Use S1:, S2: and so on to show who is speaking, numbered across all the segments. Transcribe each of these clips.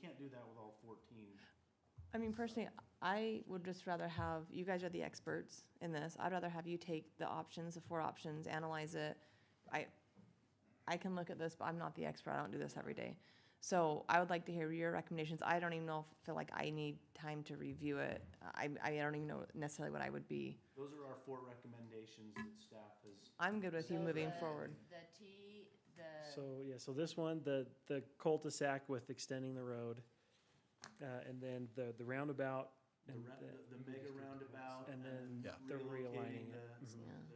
S1: can't do that with all fourteen.
S2: I mean, personally, I would just rather have, you guys are the experts in this. I'd rather have you take the options, the four options, analyze it. I, I can look at this, but I'm not the expert. I don't do this every day. So I would like to hear your recommendations. I don't even know, if feel like I need time to review it. I, I don't even know necessarily what I would be.
S1: Those are our four recommendations that staff has.
S2: I'm good with you
S3: So
S2: moving
S3: the-
S2: forward.
S3: The T, the,
S4: So, yeah, so this one, the, the cul-de-sac with extending the road, uh, and then the, the roundabout.
S1: The,
S4: and
S1: ra-
S4: the-
S1: the the mega roundabout
S4: And
S1: and then
S4: then
S1: relocating
S4: the
S1: the.
S4: realigning it.
S3: Mm-hmm.
S2: Mhm.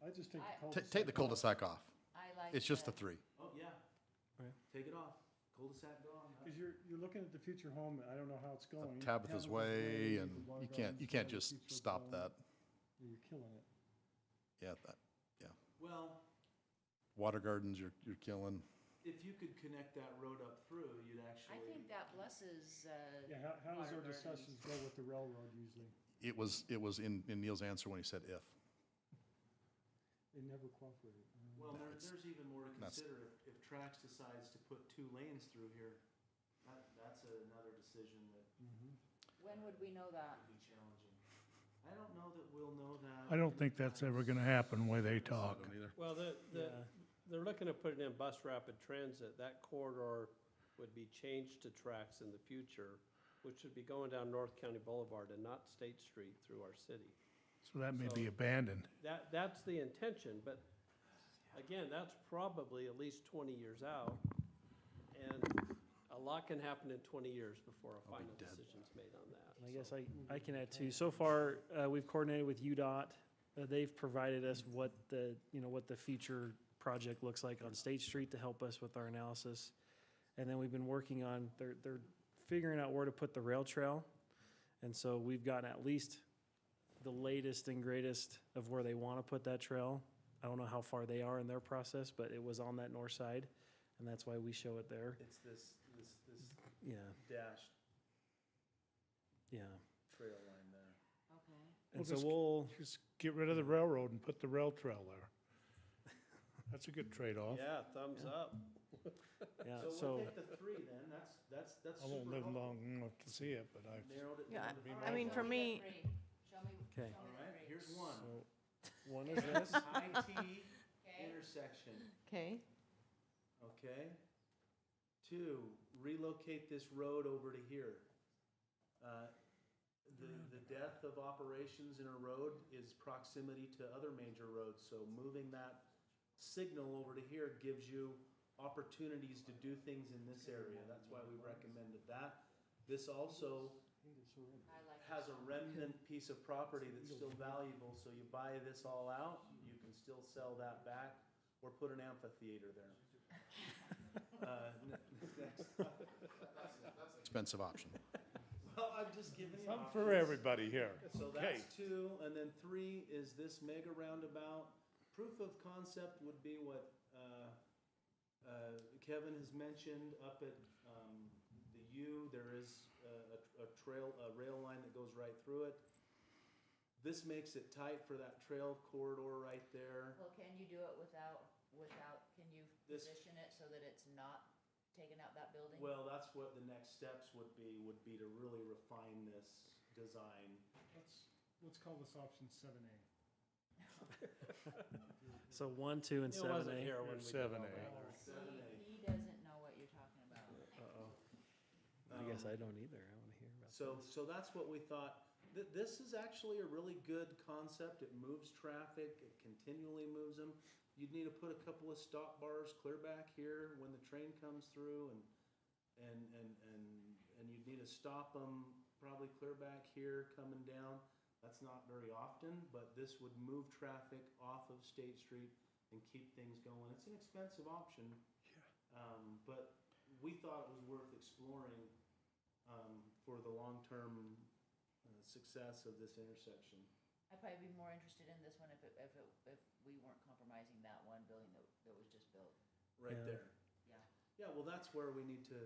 S1: the-
S5: I just take
S3: I-
S5: the
S6: Ta
S5: cul-de-sac.
S6: take the cul-de-sac off.
S3: I like.
S6: It's just the three.
S1: Oh, yeah.
S4: Right.
S1: Take it off. Cul-de-sac gone.
S5: Because you're, you're looking at the future home, and I don't know how it's going.
S6: Tabitha's Way, and
S5: the
S6: you can't, you can't
S5: Watergrounds,
S6: just
S5: the future
S6: stop
S5: home.
S6: that.
S5: You're killing it.
S6: Yeah, that,
S1: Well,
S6: water gardens, you're, you're killing.
S1: if you could connect that road up through, you'd
S3: I
S1: actually,
S3: think that blesses,
S5: Yeah,
S3: uh,
S5: how, how does our
S3: Water gardens.
S5: discussions go with the railroad usually?
S6: It was, it was in, in Neil's answer when he said if.
S5: They never cooperate.
S1: well, there,
S6: That's-
S1: there's even more to
S6: that's-
S1: consider if, if Trax decides to put two lanes through here. That, that's another decision that
S5: Mm-hmm.
S3: when would we know that?
S1: would be challenging. I don't know that we'll know that.
S7: I don't think that's ever gonna happen, the way they talk.
S8: Well, the, the,
S4: Yeah.
S8: they're looking to put it in bus rapid transit. That corridor would be changed to tracks in the future, which would be going down North County Boulevard and not State Street through our city.
S7: So that may be abandoned.
S8: That, that's the intention, but again, that's probably at least twenty years out. And a lot can happen in twenty years before a final decision's made on that.
S4: And I guess I, I can add too. So far, uh, we've coordinated with UDOT. Uh, they've provided us what the, you know, what the future project looks like on State Street to help us with our analysis. And then we've been working on, they're, they're figuring out where to put the rail trail. And so we've gotten at least the latest and greatest of where they want to put that trail. I don't know how far they are in their process, but it was on that north side, and that's why we show it there.
S1: It's this, this, this
S4: Yeah,
S1: dashed
S4: yeah.
S1: trail line there.
S3: Okay.
S4: And
S7: We'll
S4: so
S7: just-
S4: we'll,
S7: Just get rid of the railroad and put the rail trail there. That's a good trade-off.
S8: Yeah, thumbs up.
S4: yeah,
S1: So we'll
S4: so,
S1: take the three then, that's, that's, that's
S7: I won't
S1: super
S7: live
S1: helpful.
S7: long enough to see it, but I,
S1: Narrowed it
S2: Yeah,
S1: down to
S2: I-
S1: five.
S2: I mean, for
S3: Show the
S2: me-
S3: three. Show me, show me
S4: Okay.
S1: All right,
S3: the three.
S1: here's one.
S4: so one is this.
S1: High T
S3: Okay,
S1: intersection,
S2: Okay,
S1: okay? Two, relocate this road over to here. Uh, The, the death of operations in a road is proximity to other major roads, so moving that signal over to here gives you opportunities to do things in this area, that's why we recommended that. This also
S3: I like
S1: has
S3: that.
S1: a remnant piece of property that's still valuable, so you buy this all out, you can still sell that back, or put an amphitheater there. Uh, n- next-
S6: Expensive option.
S1: Well, I'm just giving you
S7: something for
S1: options.
S7: everybody here.
S1: So
S7: Okay.
S1: that's two, and then three is this mega roundabout. Proof of concept would be what, uh, uh, Kevin has mentioned up at, um, the U, there is a, a, a trail, a rail line that goes right through it. This makes it tight for that trail corridor right there.
S3: Well, can you do it without, without, can you
S1: This-
S3: position it so that it's not taking out that building?
S1: Well, that's what the next steps would be, would be to really refine this design.
S5: Let's, let's call this option seven A.
S4: So one, two, and
S8: It
S4: seven
S8: wasn't
S4: A.
S8: here when we did all
S7: Seven A.
S8: that.
S3: He,
S1: Seven A.
S3: he doesn't know what you're talking about.
S4: I
S1: Um,
S4: guess I don't either. I want to hear about.
S1: So, so that's what we thought. Th- this is actually a really good concept. It moves traffic, it continually moves them. You'd need to put a couple of stop bars clear back here when the train comes through and, and, and, and, and you'd need to stop them probably clear back here coming down. That's not very often, but this would move traffic off of State Street and keep things going. It's an expensive option. Um, but we thought it was worth exploring um, for the long-term uh, success of this intersection.
S3: I'd probably be more interested in this one if it, if it, if we weren't compromising that one building that, that was just built.
S1: Right
S4: Yeah.
S1: there.
S3: Yeah.
S1: Yeah, well, that's where we need to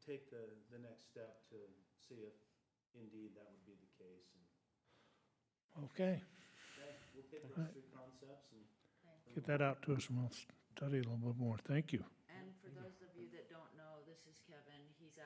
S1: take the, the next step to see if indeed that would be the case. And,
S7: Okay,
S1: okay, we'll pick those three concepts and
S7: get that out to us and we'll study it a little bit more. Thank you.
S3: And for those